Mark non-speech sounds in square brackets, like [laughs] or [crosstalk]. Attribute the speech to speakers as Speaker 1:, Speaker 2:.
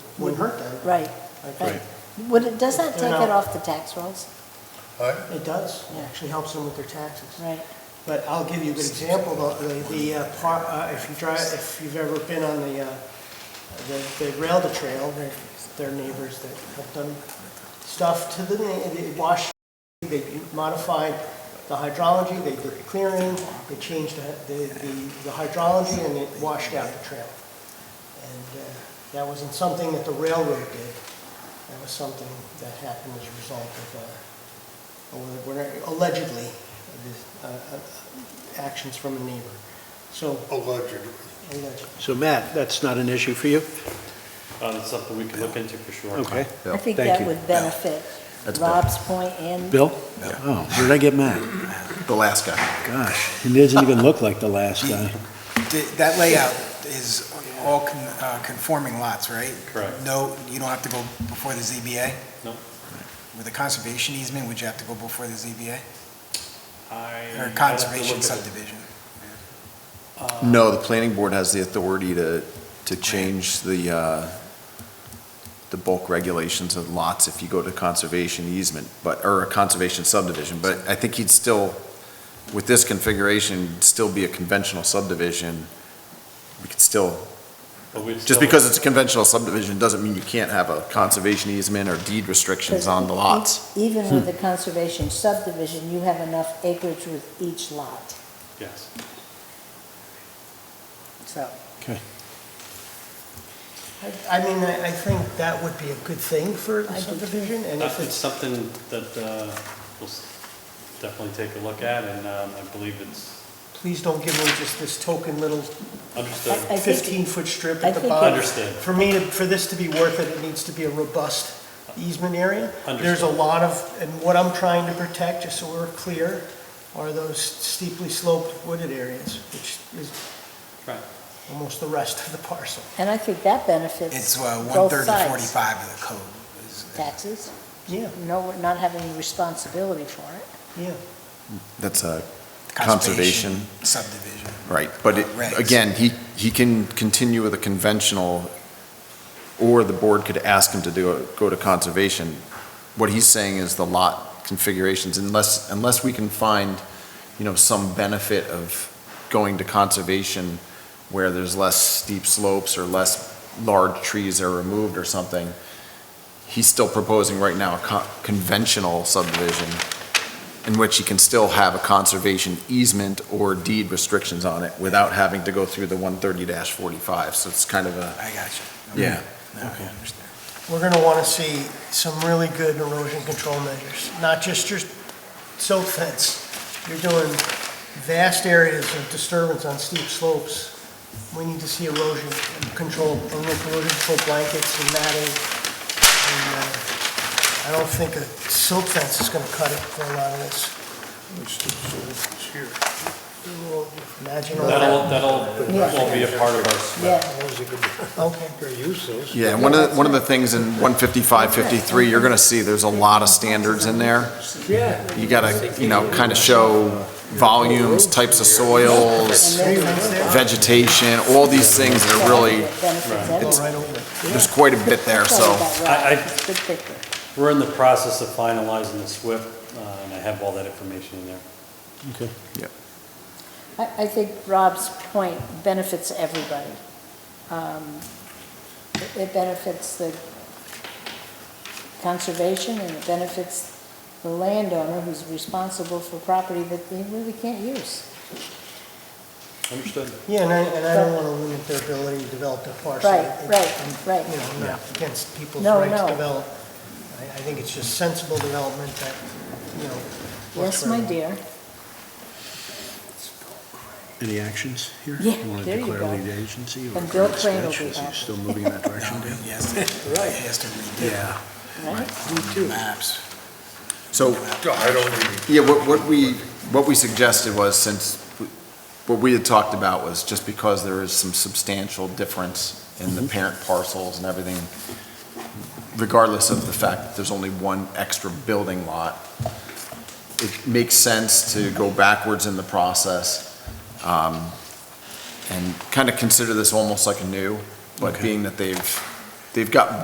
Speaker 1: wouldn't hurt them.
Speaker 2: Right,
Speaker 1: Okay.
Speaker 2: right. Would it, does that
Speaker 1: They're
Speaker 2: take
Speaker 1: not-
Speaker 2: it off the tax rolls?
Speaker 3: Alright,
Speaker 1: It does, it actually helps them with their taxes.
Speaker 2: Right.
Speaker 1: But I'll give you a good example, the, the- the, uh, par- uh, if you drive, if you've ever been on the, uh, the, the rail to trail, they're, they're neighbors that have done stuff to the, na- they wash, they modified the hydrology, they did clearing, they changed the, the, the- the hydrology, and it washed out the trail. And uh, that wasn't something that the railroad did, that was something that happened as a result of, uh, or whatever- allegedly, uh, uh, actions from a neighbor. So,
Speaker 3: allegedly.
Speaker 1: allegedly.
Speaker 4: So Matt, that's not an issue for you?
Speaker 5: Uh, That's something we can look into for sure.
Speaker 4: Okay.
Speaker 2: I think
Speaker 4: Thank
Speaker 2: that
Speaker 4: you.
Speaker 2: would benefit
Speaker 6: That's Bill.
Speaker 2: Rob's point and
Speaker 4: Bill? Oh, where did I get Matt?
Speaker 6: The last guy.
Speaker 4: Gosh, he doesn't even look like the last guy.
Speaker 7: Th- That layout is all con- uh, conforming lots, right?
Speaker 5: Correct.
Speaker 7: No, you don't have to go before the ZBA?
Speaker 5: No.
Speaker 7: With a conservation easement, would you have to go before the ZBA?
Speaker 5: I-
Speaker 7: Or
Speaker 5: I'd have to
Speaker 7: conservation
Speaker 5: look at it.
Speaker 7: subdivision?
Speaker 6: No, the planning board has the authority to, to change the, uh, the bulk regulations of lots if you go to conservation easement, but, or a conservation subdivision, but I think he'd still, with this configuration, still be a conventional subdivision. We could still,
Speaker 5: But we'd
Speaker 6: just
Speaker 5: still-
Speaker 6: because it's a conventional subdivision doesn't mean you can't have a conservation easement or deed restrictions on the lots.
Speaker 2: e-, even
Speaker 6: [laughs]
Speaker 2: with the conservation subdivision, you have enough acreage with each lot,
Speaker 5: Yes.
Speaker 2: so.
Speaker 4: Okay.
Speaker 1: I- I mean, I, I think that would be a good thing for
Speaker 2: I
Speaker 1: the
Speaker 2: do too.
Speaker 1: subdivision, and
Speaker 5: That-
Speaker 1: if
Speaker 5: Uh, It's
Speaker 1: it's,
Speaker 5: something that uh, we'll s- definitely take a look at, and um, I believe it's
Speaker 1: please don't give them just this token little
Speaker 5: understood.
Speaker 2: I think-
Speaker 1: fifteen-foot strip
Speaker 2: I
Speaker 1: at the
Speaker 2: think
Speaker 1: bottom.
Speaker 5: Understood.
Speaker 1: For me, to- for this to be worth it, it needs to be a robust easement area. There's a
Speaker 5: Understood.
Speaker 1: lot of, and what I'm trying to protect, just so we're clear, are those steeply sloped wooded areas, which is
Speaker 5: Right.
Speaker 1: almost the rest of the parcel.
Speaker 2: And I think that benefits
Speaker 7: It's uh,
Speaker 2: both
Speaker 7: 130,
Speaker 2: sides.
Speaker 7: 45 of the code. is-
Speaker 2: Taxes,
Speaker 1: Yeah,
Speaker 2: no, not having responsibility for it.
Speaker 1: yeah.
Speaker 6: That's a Conservation.
Speaker 7: Subdivision.
Speaker 6: Right, but it-
Speaker 7: Regs.
Speaker 6: again, he, he can continue with a conventional, or the board could ask him to do, a- go to conservation. What he's saying is the lot configurations, unless, unless we can find, you know, some benefit of going to conservation where there's less steep slopes or less large trees are removed or something, he's still proposing right now a co- conventional subdivision in which you can still have a conservation easement or deed restrictions on it without having to go through the 130-45. So it's kind of a,
Speaker 7: I got you.
Speaker 6: Yeah.
Speaker 7: No, I understand.
Speaker 1: we're gonna wanna see some really good erosion control measures, not just your silt fence. You're doing vast areas of disturbance on steep slopes. We need to see erosion control, erosion control blankets and matting. And, uh, I don't think a silt fence is gonna cut it for a lot of this. Imagine all
Speaker 5: That'll,
Speaker 1: that.
Speaker 5: that'll,
Speaker 2: Yeah.
Speaker 5: will be a part of our spec.
Speaker 2: Yeah,
Speaker 1: Okay.
Speaker 6: yeah, and one of, the- one of the things in 155, 53, you're going to see there's a lot of standards in there. Yeah. You gotta, you know, kind of show volumes, types of soils, vegetation, all these things that are really,
Speaker 2: benefits
Speaker 1: Go
Speaker 2: everyone.
Speaker 1: right over it.
Speaker 6: there's quite a bit there, so.
Speaker 5: I- I-
Speaker 2: It's a Good picture.
Speaker 5: We're in the process of finalizing the SWIP, uh, and I have all that information in there.
Speaker 4: Okay.
Speaker 2: I, I think Rob's point benefits everybody. Um, it- It benefits the conservation, and it benefits the landowner who's responsible for property that they really can't use.
Speaker 5: Understood.
Speaker 1: Yeah, and I, and I don't want to limit their ability to develop their parcel.
Speaker 2: Right, right,
Speaker 1: I'm-
Speaker 2: right.
Speaker 1: You know, I'm not against people's
Speaker 2: No,
Speaker 1: right
Speaker 2: no.
Speaker 1: to develop. I, I think it's just sensible development that, you know. works
Speaker 2: Yes,
Speaker 1: for
Speaker 2: my
Speaker 1: everyone.
Speaker 2: dear,
Speaker 4: Any actions here?
Speaker 2: Yeah,
Speaker 4: Want to
Speaker 2: there you
Speaker 4: declare
Speaker 2: go.
Speaker 4: lead agency or
Speaker 2: And Bill
Speaker 4: current
Speaker 2: Crane will
Speaker 4: sketch?
Speaker 2: be
Speaker 4: Is he
Speaker 2: happy.
Speaker 4: Still moving in that
Speaker 2: [laughs]
Speaker 4: direction,
Speaker 7: No,
Speaker 4: Bill?
Speaker 7: He has to, he has to redo
Speaker 4: Yeah.
Speaker 2: right?
Speaker 7: maps.
Speaker 6: So
Speaker 3: I don't even
Speaker 6: Yeah, what, what we, what we suggested was, since, we- what we had talked about was just because there is some substantial difference in the parent parcels and everything, regardless of the fact that there's only one extra building lot, it makes sense to go backwards in the process, um, and kind of consider this almost like a new, but
Speaker 4: Okay.
Speaker 6: being that they've, they've got